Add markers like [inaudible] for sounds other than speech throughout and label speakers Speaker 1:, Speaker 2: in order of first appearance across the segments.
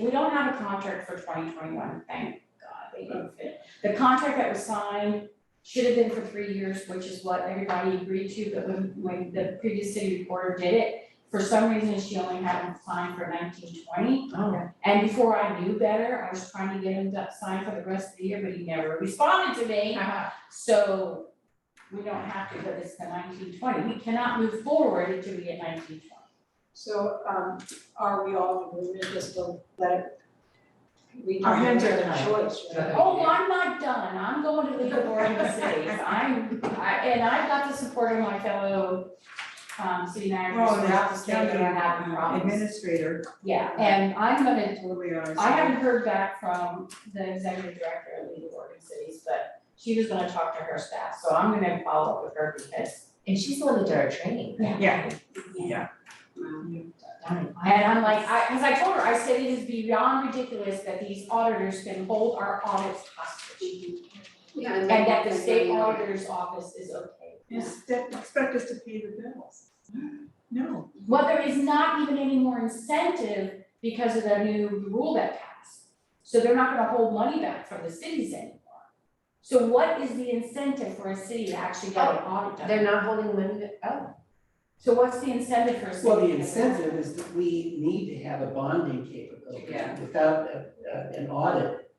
Speaker 1: We don't have a contract for twenty twenty-one, thank God, they didn't fit. The contract that was signed should have been for three years, which is what everybody agreed to, but when, when the previous city reporter did it, for some reason, she only had them signed for nineteen twenty.
Speaker 2: Oh.
Speaker 1: And before I knew better, I was trying to get him to sign for the rest of the year, but he never responded to me. So we don't have to, but it's the nineteen twenty, we cannot move forward until we get nineteen twenty.
Speaker 3: So, um, are we all in agreement just to let it? We
Speaker 2: Our
Speaker 3: don't have
Speaker 2: hands are
Speaker 3: a choice,
Speaker 2: tied.
Speaker 3: right?
Speaker 1: Oh, I'm not done, I'm going to legal board in the cities, I'm, I, and I've got the support of my fellow um city managers
Speaker 2: Oh,
Speaker 1: throughout the
Speaker 2: that's
Speaker 1: state that are having problems.
Speaker 2: administrator,
Speaker 1: Yeah, and I'm gonna,
Speaker 2: where we are.
Speaker 1: I haven't heard back from the executive director of legal board in cities, but she was gonna talk to her staff, so I'm gonna follow up with her because
Speaker 4: And she's the one that did our training.
Speaker 1: Yeah.
Speaker 2: Yeah.
Speaker 4: Darn.
Speaker 1: And I'm like, I, cause I told her, I said, it is beyond ridiculous that these auditors can hold our audits hostage.
Speaker 5: Yeah,
Speaker 1: And
Speaker 5: then-
Speaker 1: that the state
Speaker 5: then-
Speaker 1: auditor's office is okay.
Speaker 2: You st- expect us to pay the bills. [gasps] No.
Speaker 1: Well, there is not even any more incentive because of the new rule that passed. So they're not gonna hold money back from the cities anymore. So what is the incentive for a city to actually get an audit done?
Speaker 4: They're not holding money, to- oh,
Speaker 1: So what's the incentive for a city?
Speaker 6: Well, the
Speaker 1: to-
Speaker 6: incentive is that we need to have a bonding capability.
Speaker 4: Yeah.
Speaker 6: Without a- a- an audit,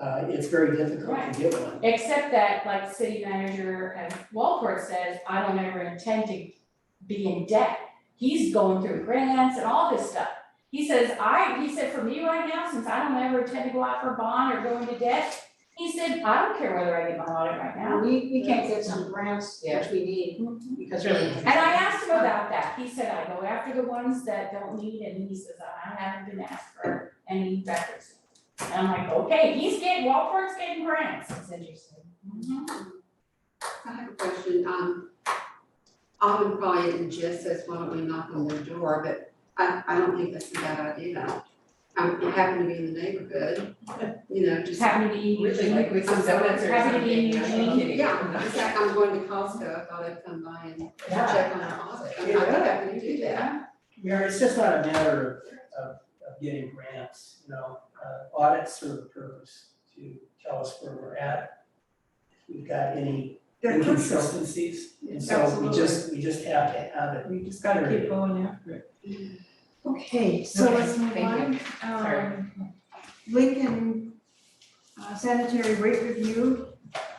Speaker 6: uh, it's very difficult
Speaker 1: Right.
Speaker 6: to get one.
Speaker 1: Except that, like city manager at Walport says, I don't ever intend to be in debt. He's going through grants and all this stuff. He says, I, he said, for me right now, since I don't ever intend to go out for a bond or go into debt, he said, I don't care whether I get my audit right now.
Speaker 3: We, we can't get some grants, which
Speaker 4: Yeah.
Speaker 3: we need, because. we're-
Speaker 4: And
Speaker 1: And I asked him about that. He said, I go after the ones that don't need, and he says, I haven't been asked for any records. And I'm like, okay, he's getting, Walport's getting grants.
Speaker 4: that's interesting.
Speaker 5: I have a question, um, Alvin probably isn't just says, why don't we knock on their door, but I, I don't think that's a bad idea. Um, it happened to be in the neighborhood, you know, just,
Speaker 1: Just happened to be.
Speaker 4: Really, like with some donuts or
Speaker 1: Happy to be in
Speaker 4: something.
Speaker 1: Eugene.
Speaker 4: I'm kidding. [laughs]
Speaker 5: yeah, it's like I'm going to Costco, I thought I'd come by and
Speaker 4: Yeah.
Speaker 5: check on the closet, I mean, I think I can do that.
Speaker 6: Mayor, it's just not a matter of, of, of getting grants, you know, uh, audits serve a purpose to tell us where we're at. If we've got any
Speaker 2: They're crucial.
Speaker 6: inconsistencies, and so we just, we just have to have it.
Speaker 2: We just gotta keep going after it. Okay, so
Speaker 4: Okay,
Speaker 2: let's move on.
Speaker 4: thank Sorry.
Speaker 2: Um, Lincoln uh, sanitary rate review.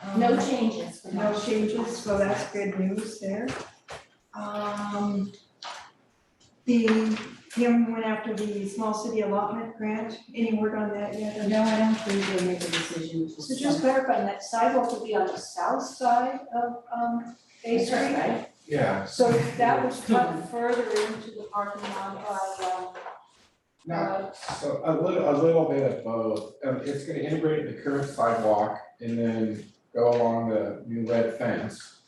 Speaker 2: um,
Speaker 1: No changes for
Speaker 2: No
Speaker 1: now.
Speaker 2: changes, so that's good news there. Um, the, Kim went after the small city allotment grant, any word on that yet?
Speaker 7: No, I don't think they make a decision. for
Speaker 3: So just
Speaker 7: some-
Speaker 3: clarifying, that sidewalk would be on the south side of, um, Bay Street?
Speaker 8: Yeah,
Speaker 3: So that would cut further into the parking lot by, uh, um,
Speaker 8: not, so a little, a little bit of both, um, it's gonna integrate the current sidewalk and then go along the new lead fence.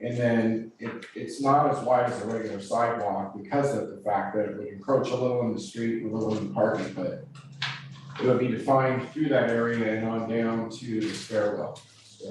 Speaker 8: And then it, it's not as wide as a regular sidewalk because of the fact that it would encroach a little in the street, and a little in the parking, but it would be defined through that area and on down to the stairwell, so.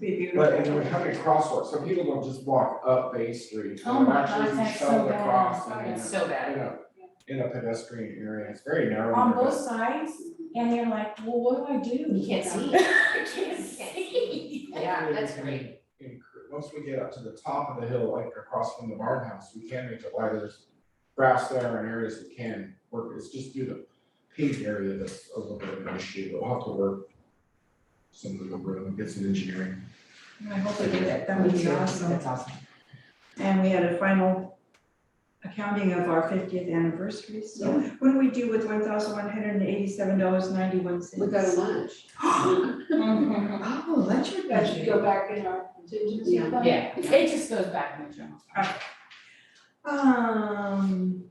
Speaker 2: Be
Speaker 8: But and then we have a crosswalk, so people don't just walk up Bay Street,
Speaker 1: Oh
Speaker 8: they'll
Speaker 1: my God,
Speaker 8: actually
Speaker 1: that's so
Speaker 8: shuttle
Speaker 1: bad.
Speaker 8: across and then
Speaker 4: It's so bad.
Speaker 8: in a, in a pedestrian area, it's very narrow.
Speaker 1: On both sides, and they're like, well, what do I do?
Speaker 4: You
Speaker 1: [laughs]
Speaker 4: can't see.
Speaker 1: I can't see.
Speaker 4: Yeah, that's great.
Speaker 8: And once we get up to the top of the hill, like across from the barn house, we can make it wider, there's grass there and areas that can work, it's just through the paved area that's a little bit of an issue, but we'll have to work some of the room and get some engineering.
Speaker 2: I hope we get that, that would be awesome.
Speaker 4: That's awesome.
Speaker 2: And we had a final accounting of our fiftieth anniversary, so what do we do with one thousand one hundred and eighty-seven dollars ninety-one cents?
Speaker 5: We go to lunch.
Speaker 1: Mhm.
Speaker 2: Oh, that's your
Speaker 3: that should
Speaker 2: budget.
Speaker 3: go back in our contingency
Speaker 5: Yeah.
Speaker 3: fund.
Speaker 1: Yeah, it just goes back in the journal.
Speaker 2: Um,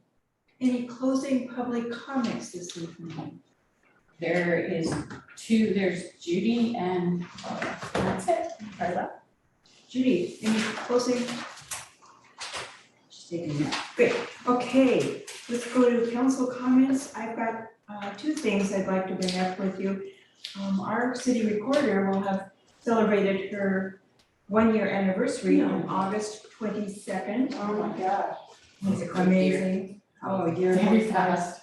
Speaker 2: any closing public comments this evening?
Speaker 1: There is two, there's Judy and uh, that's it, Carla.
Speaker 2: Judy, any closing? She's taking that. Good, okay, let's go to council comments. I've got uh two things I'd like to bring up with you. Um, our city recorder will have celebrated her one-year anniversary on August twenty-second.
Speaker 3: Oh, my gosh.
Speaker 2: Amazing. Oh, a year.
Speaker 1: Very fast.